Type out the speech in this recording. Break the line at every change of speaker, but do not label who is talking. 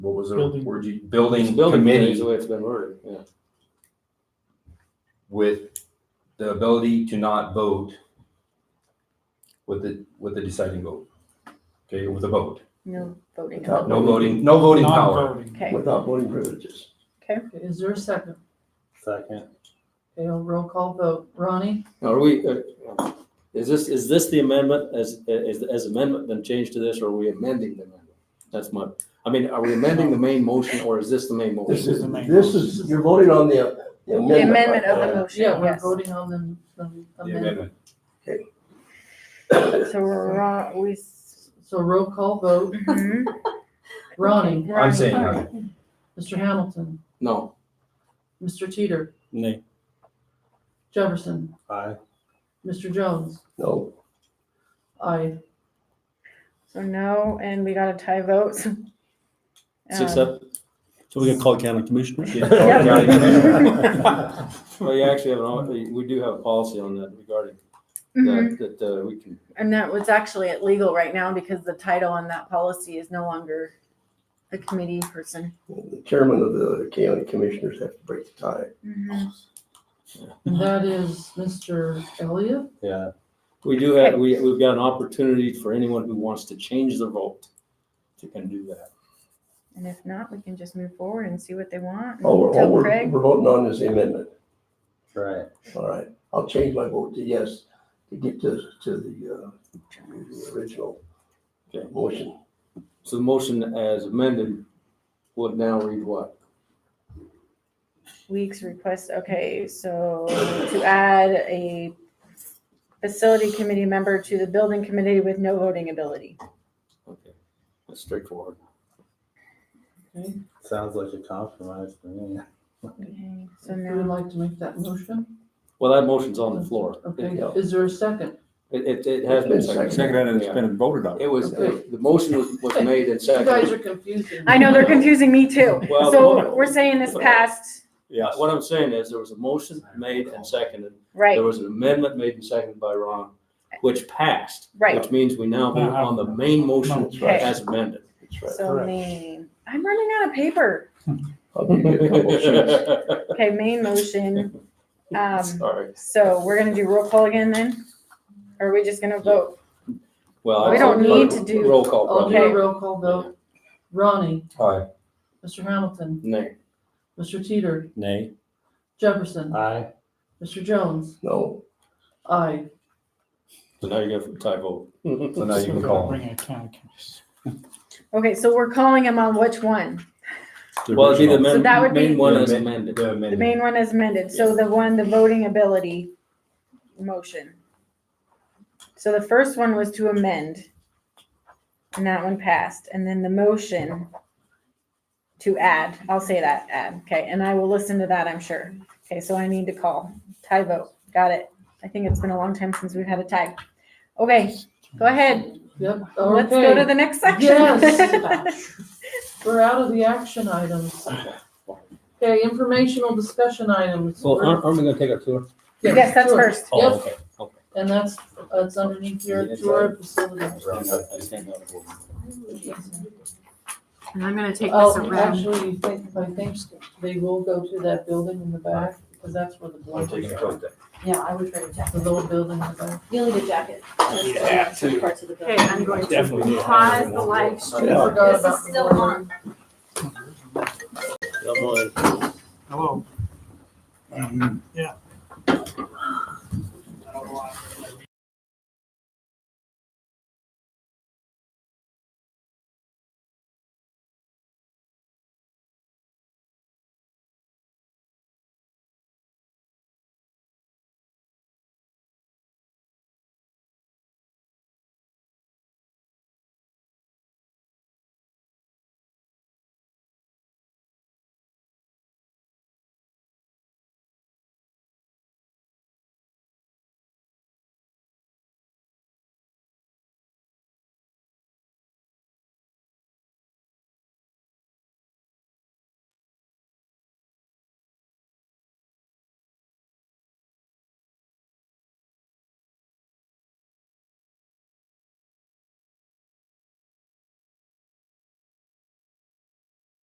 what was
Building-
it, word you, building
Building committee
committee
is the way it's been worded, yeah.
with the ability to not vote with the, with the deciding vote. Okay, with a vote,
No voting.
Without
no voting, no voting power.
Non-voting.
Okay,
without voting privileges.
Is there a second?
Second.
Okay, a roll call vote. Ronnie?
Are we, uh, is this, is this the amendment as, as, as amendment then changed to this, or are we amending the amendment? That's my, I mean, are we amending the main motion, or is this the main
This
motion?
is the main
This
motion.
is, you're voting on the the
the
amendment.
amendment of the
uh,
right?
motion,
Yeah, we're
yes.
voting on the- the
The
amendment.
amendment.
So we're on, we. s-
So roll call vote.
mhm.
Ronnie?
I'm saying aye.
Right.
Mr. Hamilton?
No.
Mr. Teeter?
Nay.
Jefferson?
Aye.
Mr. Jones?
No,
Aye.
So no, and we got a tie vote. so-
Six
Um,
Uh,
up? So we can call county commissioners?
Yeah.
Well, you actually have an, al- we do have a policy on that regarding
mhm.
Mm-hmm.
that, that uh, we can,
And that was actually illegal right now because the title on that policy is no longer a committee person.
Uh, the chairman of the county commissioners have to break the tie.
Mm-hmm.
And that is Mr. Elliott?
yeah. We do have, we, we've got an opportunity for anyone who wants to change their vote to can do that.
And if not, we can just move forward and see what they want.
All Oh, we're, all
Tell
we're,
Craig,
we're voting on is the amendment.
Right.
All right, I'll change my vote to yes to get to, to the, uh, the original
Okay.
motion.
So the motion as amended would now read what?
weeks request, okay, so to add a facility committee member to the building committee with no voting ability.
Okay, that's straightforward.
Okay.
Sounds like a compromise to me.
Okay, So
If you would
now,
like to make that motion?
Well, that motion's on the floor.
Okay,
Yeah.
is there a second?
It, it, it has been seconded.
Seconded
and it's been voted on. It was, the motion was, was made and
You guys
seconded.
are confusing.
I know they're confusing me too.
Well, hold
So
on.
we're saying this passed,
Yeah, what I'm saying is there was a motion made and seconded. There
right,
was an amendment made and seconded by Ron, which passed.
right.
Which means we now vote on the main motion
That's right.
as amended.
That's right.
So
Correct.
main, I'm running out of paper.
I'll give you a couple of sheets.
Okay, main motion. Um,
Sorry.
so we're gonna do roll call again then? Or are we just gonna vote?
Well.
We
I-
don't need to do-
Roll call,
I'll
probably.
do a roll call vote. Ronnie?
Aye.
Mr. Hamilton?
Nay.
Mr. Teeter?
Nay.
Jefferson?
Aye.
Mr. Jones?
No,
Aye.
So now you go for a tie vote.
So now you
So
can
we're
call.
bringing a county commis-
Okay, so we're calling them on which one?
Well, it'd be the
So that
main,
would be-
main one as
The
amended.
The
The
amendment.
main one is amended, so the one, the voting ability motion. So the first one was to amend. And that one passed, and then the motion to add, I'll say that, add, okay, and I will listen to that, I'm sure. Okay, so I need to call, tie vote, got it. I think it's been a long time since we've had a tie. Okay, go ahead,
Yep, okay.
let's go to the next section.
Yes. We're out of the action items. Okay, informational discussion items.
we gonna take a tour?
Yes, that's
sure.
first.
Yep.
okay. okay.
And that's, that's underneath your tour facility.
And I'm gonna take this
Oh,
around.
actually, you think, I think they will go to that building in the back, because that's where the
I'm
blunt
taking
is.
a vote then.
Yeah, I would wear a
The
jacket.
little building in the back.
You'll need a jacket.
Oh,
need that, too.
Parts of the building.
Okay, I'm going
Definitely
to
need to
pause
have
the live stream.
I forgot
This
about
is
the
still
border.
on.
Hello. Um, Yeah.